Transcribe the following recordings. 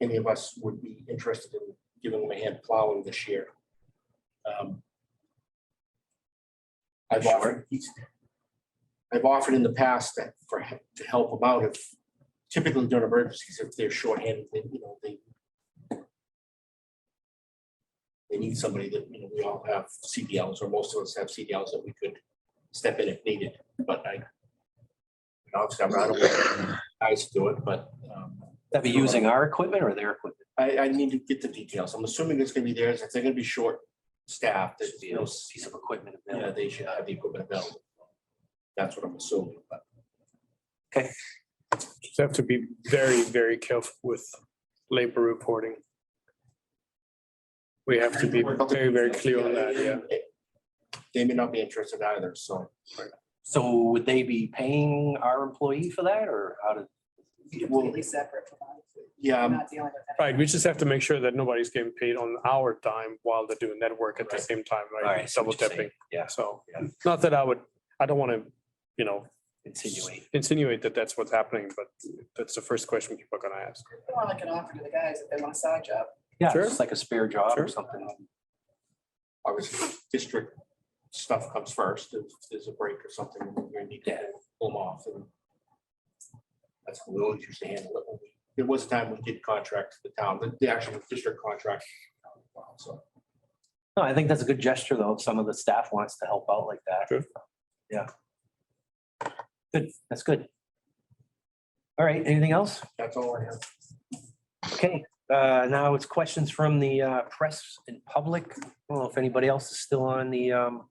any of us would be interested in giving them a hand plowing this year. Um, I've offered, I've offered in the past that for, he- to help them out if typically during emergencies, if they're shorthanded, they, you know, they they need somebody that, you know, we all have CDLs or most of us have CDLs that we could step in if needed, but I and obviously, I'm not aware, I used to do it, but um, That'd be using our equipment or their equipment? I, I need to get the details. I'm assuming it's gonna be theirs. If they're gonna be short staffed, there's Should be you a know, piece of equipment yeah, available. they should have the equipment available. That's what I'm assuming, but Just have to be very, very careful with labor reporting. We have to be very, very clear on that, yeah. they may not be interested either, so. So would they be paying our employee for that or how did? it will- completely separate from us. Yeah, We're um, not dealing with that. Right, we just have to make sure that nobody's getting paid on our time while they're doing that work at the Right. same time, All right? right, so Double what you're saying, dipping. yeah. So, Yeah. not that I would, I don't want to, you know, Insinuate. insinuate that that's what's happening, but that's the first question people are gonna ask. It's More like an offer to the guys if they want a side job. Yeah, Sure. it's like a spare job or Sure. something. obviously, district stuff comes first. If there's a break or something, we're gonna need to pull them off and that's how we always used to handle it. when we- There was a time we did contract to the town, the, the actual district contract. So No, I think that's a good gesture though. If some of the staff wants to help out like that. Sure. Yeah. Good, that's good. All right, anything else? that's all I have. Okay, uh, now it's questions from the uh, press and public. I don't know if anybody else is still on the um,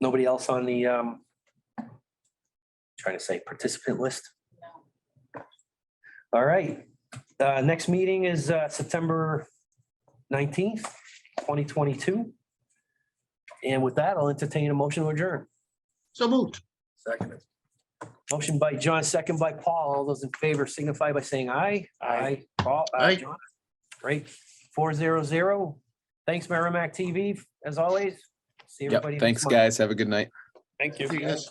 nobody else on the um, trying to say participant list. No. All right, uh, next meeting is uh, September nineteenth, twenty twenty-two. And with that, I'll entertain a motion to adjourn. So moved. Second. Motion by John, second by Paul. All those in favor signify by saying aye. Aye. Paul, uh, Aye. John. Great. Four zero zero. Thanks, Merrimack TV, as always. See Yep, everybody. next thanks, month. guys. Have a good night. Thank you. Yes.